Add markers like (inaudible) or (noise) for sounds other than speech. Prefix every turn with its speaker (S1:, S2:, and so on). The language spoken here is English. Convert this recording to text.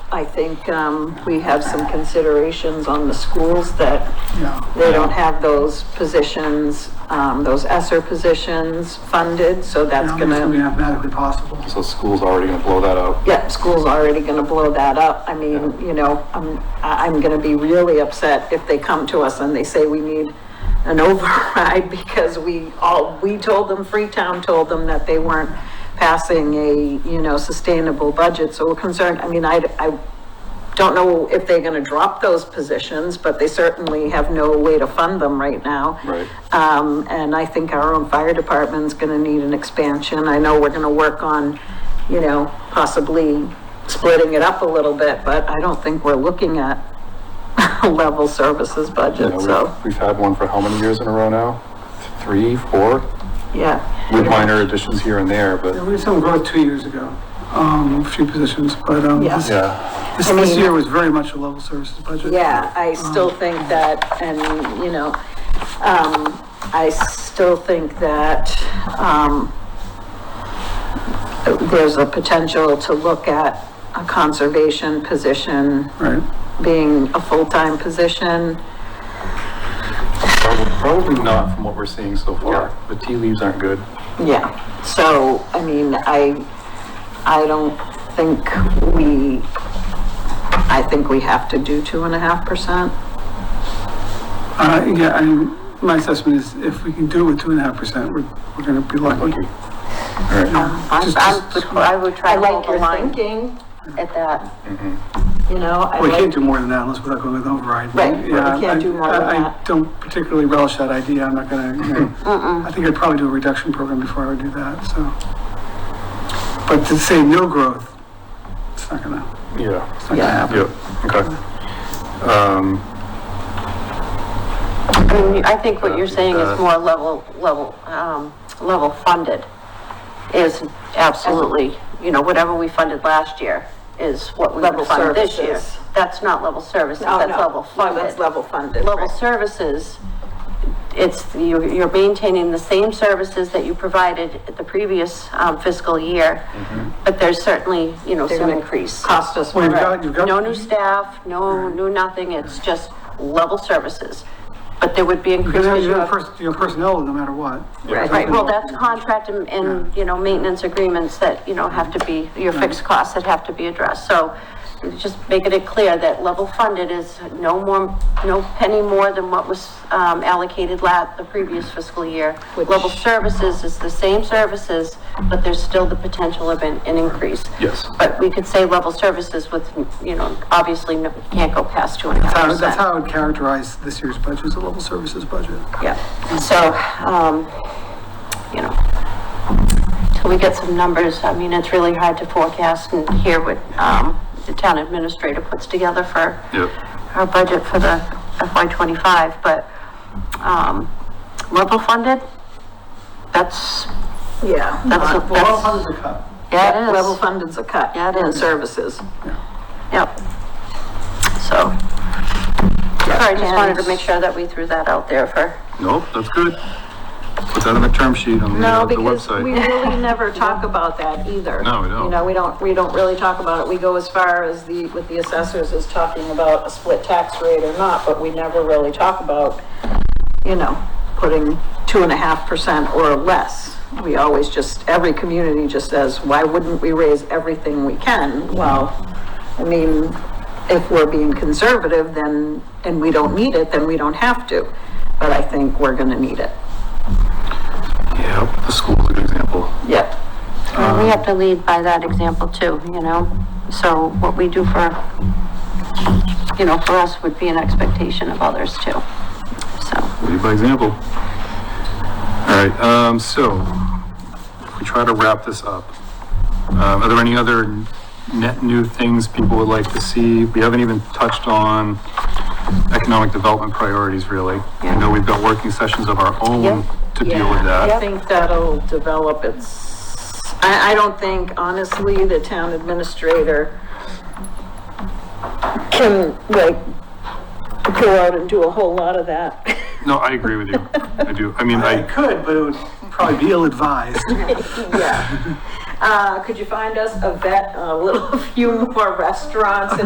S1: I think, um, we have some considerations on the schools that
S2: Yeah.
S1: they don't have those positions, um, those ESER positions funded, so
S2: I
S1: that's
S2: don't think it's gonna be
S1: gonna,
S2: mathematically possible.
S3: So school's already gonna blow that up.
S1: yeah, school's already gonna blow that up. I mean, you know, I'm, I- I'm gonna be really upset if they come to us and they say we need an (laughs) override because we all, we told them, Freetown told them that they weren't passing a, you know, sustainable budget, so we're concerned. I mean, I, I don't know if they're gonna drop those positions, but they certainly have no way to fund them right now.
S3: Right.
S1: Um, and I think our own fire department's gonna need an expansion. I know we're gonna work on, you know, possibly splitting it up a little bit, but I don't think we're looking at (laughs) a level services
S3: You
S1: budget,
S3: know,
S1: so,
S3: we've, we've had one for how many years in a row now? Three, four?
S1: yeah.
S3: With minor additions here and there, but
S2: There was some growth two years ago, um, a few positions, but, um,
S1: Yeah.
S2: this,
S3: yeah,
S2: this-
S1: I
S2: this
S1: mean-
S2: year was very much a level services budget.
S1: Yeah,
S2: Um,
S1: I still think that, and, you know, um, I still think that, um, there's a potential to look at a conservation position
S2: Right,
S1: being a full-time position.
S3: probably, probably not from what we're seeing so far. The tea leaves aren't good.
S1: Yeah, so, I mean, I, I don't think we, I think we have to do two and a half percent.
S2: uh, yeah, I mean, my assessment is if we can do it with two and a half percent, we're, we're gonna be lucky.
S3: Lucky. All right,
S4: I'm,
S2: Just-
S4: I'm,
S2: just-
S4: would- I would try
S1: I
S4: to hold
S1: like
S4: the
S1: your
S4: line
S1: thinking,
S4: at that.
S1: you know, I
S2: We can't
S1: like,
S2: do more than that unless we're not going with override.
S1: Right, we
S2: Yeah,
S1: can't
S2: I-
S1: do more than
S2: I- I
S1: that.
S2: don't particularly relish that idea, I'm not gonna, you know, I think I'd probably do a reduction program before I would do that, so. But to say no growth, it's not gonna,
S3: yeah,
S2: it's not gonna
S1: Yeah.
S2: happen.
S3: yep, okay. Um,
S4: I mean, I think what you're saying
S3: Uh,
S4: is more level, level, um, level funded is absolutely, you know, whatever we funded last year is what we
S1: Level
S4: would fund this year.
S1: services.
S4: That's not level services,
S1: oh,
S4: that's
S1: no,
S4: level
S1: no,
S4: funded.
S1: that's level funded.
S4: Level
S1: right.
S4: services, it's, you're, you're maintaining the same services that you provided at the previous um, fiscal year, but there's certainly, you know,
S1: They're
S4: some
S1: gonna
S4: increase.
S1: Cost us
S2: Well,
S1: more.
S2: you've got, you've got.
S4: No new staff, no, no nothing, it's just level services. But there would be
S2: You're
S4: increased.
S2: gonna have
S4: issue
S2: your
S4: of-
S2: pers- your personnel, no matter what.
S4: Right, well, that's contract and, and, you know, maintenance agreements that, you know, have to be, your fixed costs that have to be addressed. So just making it clear that level funded is no more, no penny more than what was, um, allocated la, the previous fiscal year.
S1: Which-
S4: Level services is the same services, but there's still the potential of an, an increase.
S3: Yes.
S4: But we could say level services with, you know, obviously no- can't go past two and a half
S2: That's how-
S4: percent.
S2: That's how I would characterize this year's budget, as a level services budget.
S4: Yeah, so, um, you know, till we get some numbers, I mean, it's really hard to forecast and hear what, um, the town administrator puts together for
S3: Yep.
S4: our budget for the FY twenty-five, but, um, level funded, that's,
S1: Yeah.
S4: that's,
S1: not-
S2: Well, level
S4: that's,
S2: funded's a cut.
S4: yeah, it
S1: Level
S4: is,
S1: funded's a cut.
S4: Yeah, it
S1: in
S4: is.
S1: Services.
S4: yep. So, sorry, just wanted to make sure that we threw that out there for,
S3: Nope, that's good. Put that on the term sheet on the
S1: No,
S3: uh, the
S1: because we
S3: website.
S1: really (laughs) never talk about that either.
S3: No, we don't.
S1: You know, we don't, we don't really talk about it. We go as far as the, with the assessors is talking about a split tax rate or not, but we never really talk about, you know, putting two and a half percent or less. We always just, every community just says, why wouldn't we raise everything we can? Well, I mean, if we're being conservative, then, and we don't need it, then we don't have to. But I think we're gonna need it.
S3: Yep, the school's a good example.
S1: Yep.
S4: Well, we have to lead by that example too, you know? So what we do for, you know, for us would be an expectation of others too. So,
S3: Lead by example. All right, um, so if we try to wrap this up, um, are there any other net new things people would like to see? We haven't even touched on economic development priorities really. I know we've got working sessions of our own
S4: Yeah.
S3: to deal
S1: Yeah,
S3: with
S1: I
S3: that.
S1: think that'll develop its, I, I don't think honestly the town administrator can like go out and do a whole lot of that.
S3: No, I agree with you. I do. I mean,
S2: I
S3: I,
S2: could, but it would probably be ill-advised.
S1: (laughs) Yeah. Uh, could you find us a vet, a little few more restaurants